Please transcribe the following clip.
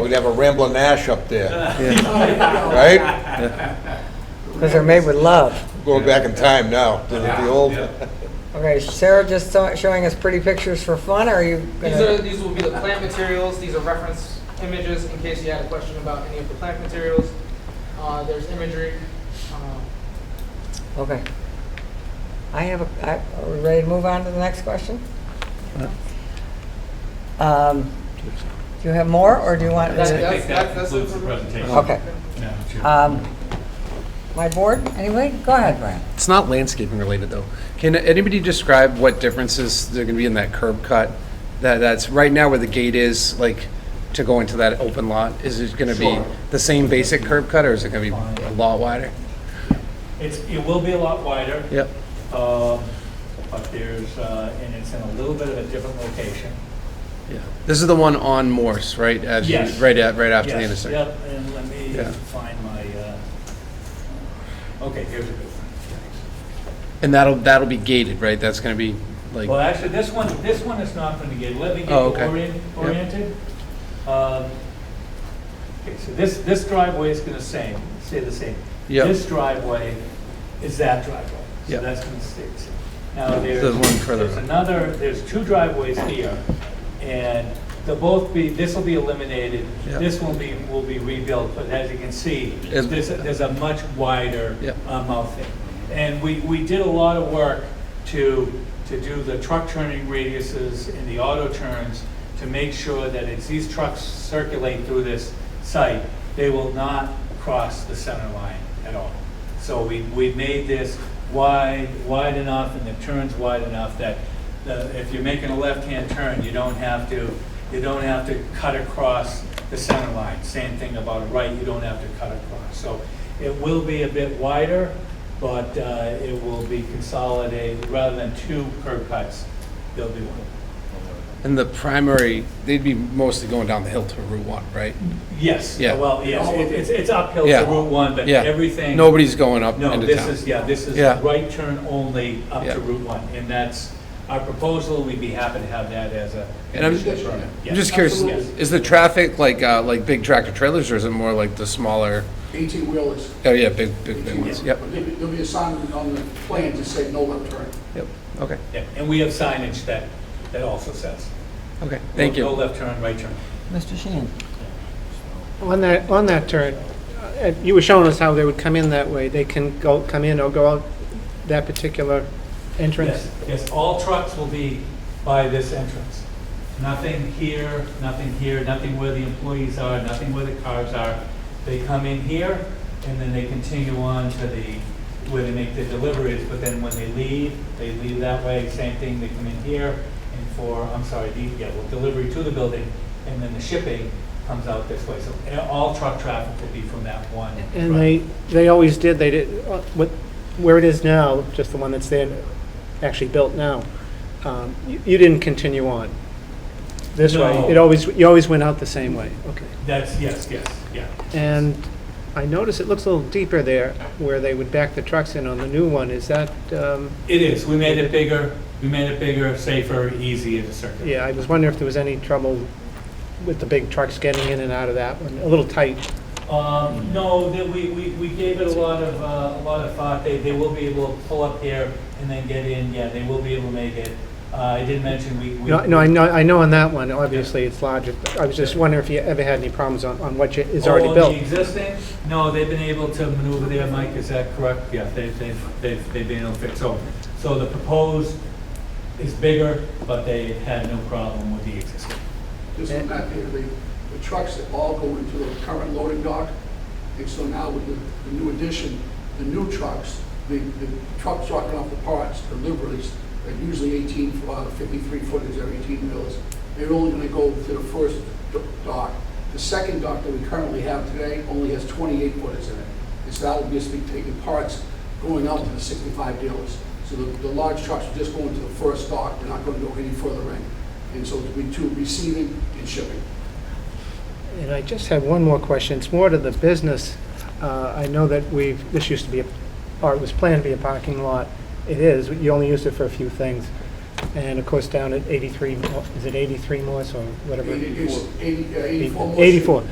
we'd have a rambling ash up there, right? Because they're made with love. Going back in time now, the the old, Okay, Sarah just saw- showing us pretty pictures for fun, or are you These are, gonna? these will be the plant materials, these are reference images in case you had a question about any of the plant materials. Uh, there's imagery, uh, Okay. I have a, I- are we ready to move on to the next question? Um, Do you have more, or do you want? That's- I to- think that concludes the presentation. Okay. Um, My board, anyway? Go ahead, Brian. It's not landscaping related, though. Can anybody describe what differences there are going to be in that curb cut? That, that's right now where the gate is, like, to go into that open lot? Is it going to be Sure. the same basic curb cut, or is it going to be a lot wider? It's, it will be a lot wider. Yep. Um, But there's, uh, and it's in a little bit of a different location. Yeah. This is the one on Morse, right? as you- Yes. Right at, right after the Yes, intersection? Yep, and let me Yeah. find my, uh, okay, here's a good one. And that'll, that'll be gated, right? That's going to be, Well, like, actually, this one, this one is not going to get, let me get Oh, okay. you orient- Yep. oriented. Um, Okay, so this, this driveway is going to same, stay the same. Yep. This driveway is that driveway. So Yep. that's going to stay the same. Now, there's. There's one further. There's another, there's two driveways here, and they'll both be, this will be eliminated. Yep. This will be, will be rebuilt, but as you can see, It's- there's, a- there's a much wider Yep. uh, mouthing. And we, we did a lot of work to, to do the truck turning radiuses and the auto turns to make sure that as these trucks circulate through this site, they will not cross the center line at all. So we, we made this wide, wide enough and the turns wide enough that the, if you're making a left-hand turn, you don't have to, you don't have to cut across the center line. Same thing about a right, you don't have to cut across. So it will be a bit wider, but uh, it will be consolidated, rather than two curb cuts, there'll be one. and the primary, they'd be mostly going down the hill to Route 1, right? Yes, Uh, Yeah. well, yes, it- it's, it's uphill to Yeah. Route 1, but Yeah. everything. Nobody's going up into No, town. this is, yeah, this is Yeah. right turn only up Yeah. to Route 1, and that's our proposal, we'd be happy to have that as a. And I'm, condition of permit. I'm just curious, Yes. is the traffic like, uh, like big tractor trailers, or is it more like the smaller, Eighteen wheelers. oh, yeah, big, big, big ones? Yep, There'll be a sign on the plan to say no left turn. yep, okay, Yeah, And we have signage that, that also says. okay, thank no- No you. left turn, right turn. Mr. Sheehan? On that, on that turn, uh, you were showing us how they would come in that way. They can go, come in or go out that particular entrance? Yes, yes, all trucks will be by this entrance. Nothing here, nothing here, nothing where the employees are, nothing where the cars are. They come in here, and then they continue on to the, where they make their deliveries, but then when they leave, they leave that way, same thing, they come in here, and for, I'm sorry, the, yeah, well, delivery to the building, and then the shipping comes out this way. So eh, all truck traffic will be from that one. And they, they always did, they did, uh, what, where it is now, just the one that's there, actually built now, um, you you didn't continue on this way? It No. always, you always went out the same way, okay. That's, yes, yes, yeah. And I notice it looks a little deeper there where they would back the trucks in on the new one. Is that, um, It is, we made it bigger, we made it bigger, safer, easier to circulate. Yeah, I was wondering if there was any trouble with the big trucks getting in and out of that one, a little tight. Um, no, that we, we, we gave it a lot of, uh, a lot of thought, they, they will be able to pull up here and then get in, yeah, they will be able to make it. Uh, I did mention we, we. No, no, I know, I know on that one, obviously it's larger, but I was just wondering if you ever had any problems on, on what you- is Oh, already the built. existing, no, they've been able to maneuver there, Mike, is that correct? Yeah, they, they've, they've, they've been able to fix, so, so the proposed is bigger, but they had no problem with the existing. This will not be the, the trucks that all go into the current loading dock. And so now with the, the new addition, the new trucks, the, the trucks dropping off the parts, deliveries, are usually eighteen, uh, fifty-three footers or eighteen wheelers. They're only gonna go to the first do- dock. The second dock that we currently have today only has twenty-eight footers in it. And so that will just be taking parts going out to the sixty-five dealers. So the, the large trucks are just going to the first dock, they're not gonna go any further in. And so it'll be to receiving and shipping. And I just have one more question, it's more to the business. Uh, I know that we've, this used to be, a or it was planned to be a parking lot. It is, you only used it for a few things. And of course, down at 83, Mo- is it 83 Morse or whatever? Eighty- it's eighty- uh, 84 more. 84.